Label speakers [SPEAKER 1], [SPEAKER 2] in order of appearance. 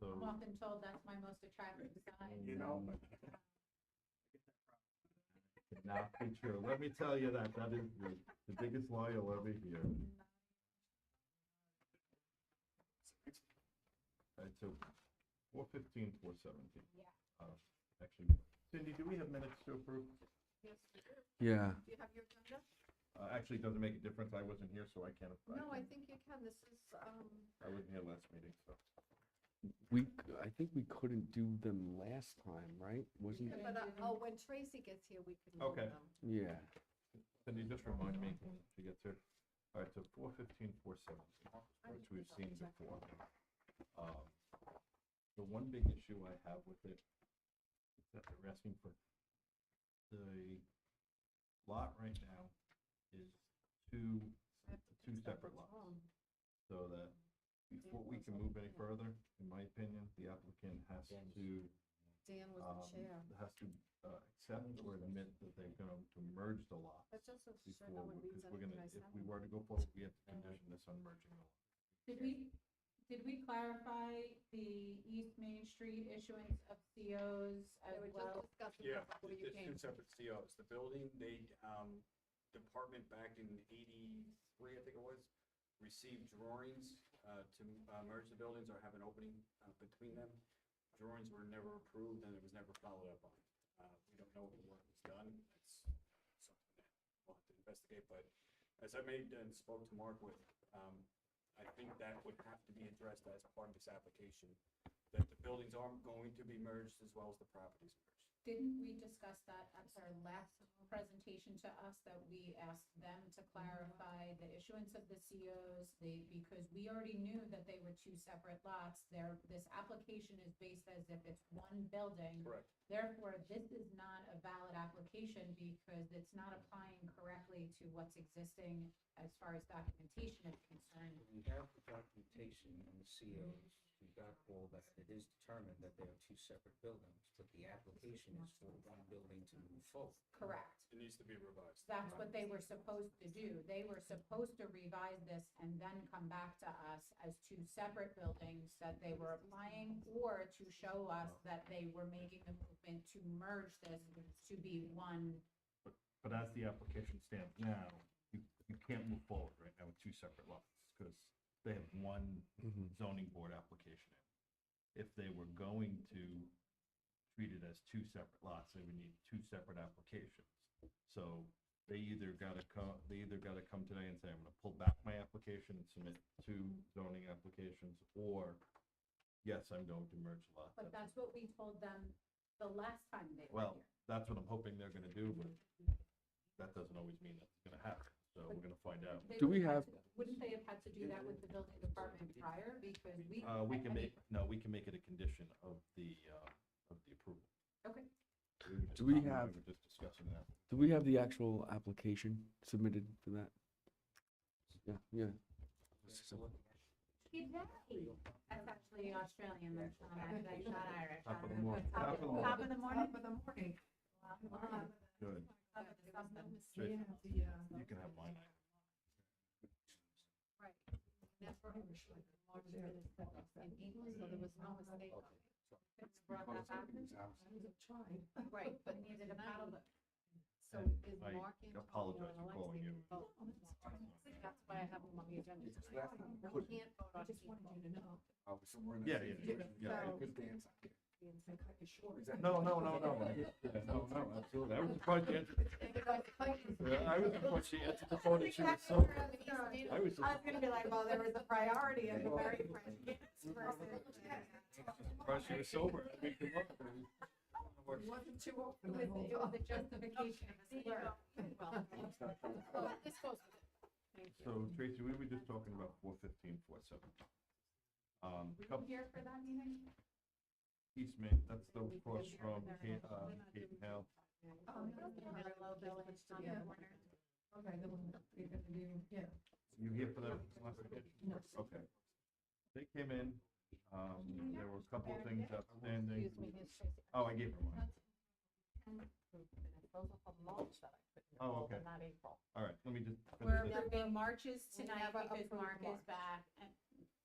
[SPEAKER 1] So,
[SPEAKER 2] I'm often told that's my most attractive sign.
[SPEAKER 1] You
[SPEAKER 2] so,
[SPEAKER 1] know?
[SPEAKER 2] um,
[SPEAKER 1] could not be true. Let me tell you that, that is the, the biggest lie you'll ever hear. All right, so Uh, four fifteen, four seventeen, Uh,
[SPEAKER 2] Yeah.
[SPEAKER 1] actually. Cindy, do we have minutes to approve?
[SPEAKER 2] Yes, we do.
[SPEAKER 3] Yeah,
[SPEAKER 2] Do you have your agenda?
[SPEAKER 1] Uh, actually, it doesn't make a difference. I wasn't here, so I can't.
[SPEAKER 2] No, I
[SPEAKER 1] can't-
[SPEAKER 2] think you can. This is, um,
[SPEAKER 1] I wasn't here last meeting, so.
[SPEAKER 3] we, c- I think we couldn't do them last time, right? Wasn't,
[SPEAKER 2] but, uh, oh, when Tracy gets here, we can. do
[SPEAKER 1] Okay.
[SPEAKER 2] them.
[SPEAKER 3] yeah,
[SPEAKER 1] Cindy, just remind me when she gets here. All right, so four fifteen, four seventeen, which we've seen before. Um, The one big issue I have with it is that they're asking for, the lot right now is two,
[SPEAKER 2] I have to
[SPEAKER 1] two
[SPEAKER 2] fix that
[SPEAKER 1] separate lots.
[SPEAKER 2] what's wrong.
[SPEAKER 1] So that before we can move any further, in my opinion, the applicant has to
[SPEAKER 2] Dan
[SPEAKER 1] um,
[SPEAKER 2] was the chair.
[SPEAKER 1] has to uh, accept or admit that they're going to merge the lots
[SPEAKER 2] That's just so sure no
[SPEAKER 1] before,
[SPEAKER 2] one reads
[SPEAKER 1] because we're gonna,
[SPEAKER 2] anything I
[SPEAKER 1] if
[SPEAKER 2] send
[SPEAKER 1] we
[SPEAKER 2] them.
[SPEAKER 1] were to go forward, we have to condition this on merging the lots.
[SPEAKER 2] Did we, did we clarify the East Main Street issuance of COs as well?
[SPEAKER 4] Yeah, it- it's two separate COs. The building, they, um, department back in eighty-three, I think it was, received drawings, uh, to, uh, merge the buildings or have an opening, uh, between them. Drawings were never approved and it was never followed up on. Uh, we don't know if the work was done. That's something that we'll have to investigate, but as I made and spoke to Mark with, um, I think that would have to be addressed as part of this application, that the buildings are going to be merged as well as the properties merged.
[SPEAKER 2] Didn't we discuss that at our last presentation to us, that we asked them to clarify the issuance of the COs? The, because we already knew that they were two separate lots, there, this application is based as if it's one building.
[SPEAKER 4] Correct.
[SPEAKER 2] Therefore, this is not a valid application because it's not applying correctly to what's existing as far as documentation is concerned.
[SPEAKER 5] We have the documentation on the COs, we got all that, it is determined that they are two separate buildings, but the application is for one building to move forward.
[SPEAKER 2] Correct.
[SPEAKER 4] It needs to be revised.
[SPEAKER 2] That's what they were supposed to do. They were supposed to revise this and then come back to us as two separate buildings that they were applying or to show us that they were making the movement to merge this to be one.
[SPEAKER 1] But as the application stands now, you, you can't move forward right now with two separate lots, because they have one
[SPEAKER 3] mhm.
[SPEAKER 1] zoning board application in. If they were going to treat it as two separate lots, they would need two separate applications. So they either gotta come, they either gotta come today and say, I'm gonna pull back my application and submit two zoning applications, or yes, I'm going to merge lots.
[SPEAKER 2] But that's what we told them the last time they were
[SPEAKER 1] Well,
[SPEAKER 2] here.
[SPEAKER 1] that's what I'm hoping they're gonna do, but that doesn't always mean that's gonna happen, so we're gonna find out.
[SPEAKER 2] They
[SPEAKER 3] Do we
[SPEAKER 2] would've had
[SPEAKER 3] have-
[SPEAKER 2] to- Wouldn't they have had to do that with the building department prior because we?
[SPEAKER 1] Uh, we can
[SPEAKER 2] I
[SPEAKER 1] make,
[SPEAKER 2] mean,
[SPEAKER 1] no, we can make it a condition of the, uh, of the approval.
[SPEAKER 2] Okay.
[SPEAKER 1] We were just-
[SPEAKER 3] Do we
[SPEAKER 1] we
[SPEAKER 3] have-
[SPEAKER 1] were Just discussing that.
[SPEAKER 3] Do we have the actual application submitted for that? Yeah, yeah.
[SPEAKER 2] Good day. That's actually Australian, that's not, that's not Irish.
[SPEAKER 1] Top of the morning.
[SPEAKER 2] Top of the morning. Top of the morning.
[SPEAKER 1] Good.
[SPEAKER 2] Top of the- top of the-
[SPEAKER 1] So You
[SPEAKER 6] You
[SPEAKER 1] can have mine.
[SPEAKER 2] Right. Never Irish, like, March is the best in English, so there was no mistake. on it. Couldn't brought that back. Right, but needed a paddle boat. So
[SPEAKER 1] And
[SPEAKER 2] is
[SPEAKER 1] I
[SPEAKER 2] Mark in?
[SPEAKER 1] apologize for calling you.
[SPEAKER 2] Oh, That's why I have him on the agenda.
[SPEAKER 5] It's
[SPEAKER 2] tonight.
[SPEAKER 5] last
[SPEAKER 2] We
[SPEAKER 5] time.
[SPEAKER 2] can't vote
[SPEAKER 6] I
[SPEAKER 2] on
[SPEAKER 6] just wanted
[SPEAKER 2] people.
[SPEAKER 6] you to know.
[SPEAKER 5] Oh, so we're in.
[SPEAKER 1] Yeah, yeah, yeah, yeah.
[SPEAKER 5] Good dance.
[SPEAKER 6] I cut you short.
[SPEAKER 1] No, no, no, no. Yeah, No, no, absolutely. I was surprised you answered. Yeah, I was surprised she answered the phone. and She was so, I was,
[SPEAKER 2] I was gonna be like, well, there was a priority and a very fresh
[SPEAKER 1] surprised she was sober. I mean, come on.
[SPEAKER 6] It wasn't too open.
[SPEAKER 2] With the- with the justification of the slur. Well, well, this goes with it. Thank you. Um,
[SPEAKER 1] So Tracy, we were just talking about four fifteen, four seventeen. Um,
[SPEAKER 2] Were you
[SPEAKER 1] couple,
[SPEAKER 2] here for that meeting?
[SPEAKER 1] East Main, that's the cross from, Ca- uh, Cape and Hill.
[SPEAKER 6] Oh, no,
[SPEAKER 2] You know, the low village on the
[SPEAKER 6] Yeah.
[SPEAKER 2] corner.
[SPEAKER 6] Okay, the one that we had to do, yeah.
[SPEAKER 1] You here for that last meeting?
[SPEAKER 6] No.
[SPEAKER 1] Okay. They came in, um, there were a couple of things outstanding.
[SPEAKER 2] Excuse me, it's Tracy.
[SPEAKER 1] Oh, I gave her mine.
[SPEAKER 2] Those are the mulch that I put in the
[SPEAKER 1] Oh,
[SPEAKER 2] fall,
[SPEAKER 1] okay.
[SPEAKER 2] Not April.
[SPEAKER 1] all right, let me just. finish
[SPEAKER 2] We're
[SPEAKER 1] this.
[SPEAKER 2] moving Marches
[SPEAKER 6] We
[SPEAKER 2] tonight
[SPEAKER 6] never
[SPEAKER 2] because
[SPEAKER 6] approved
[SPEAKER 2] Mark is
[SPEAKER 6] March.
[SPEAKER 2] back and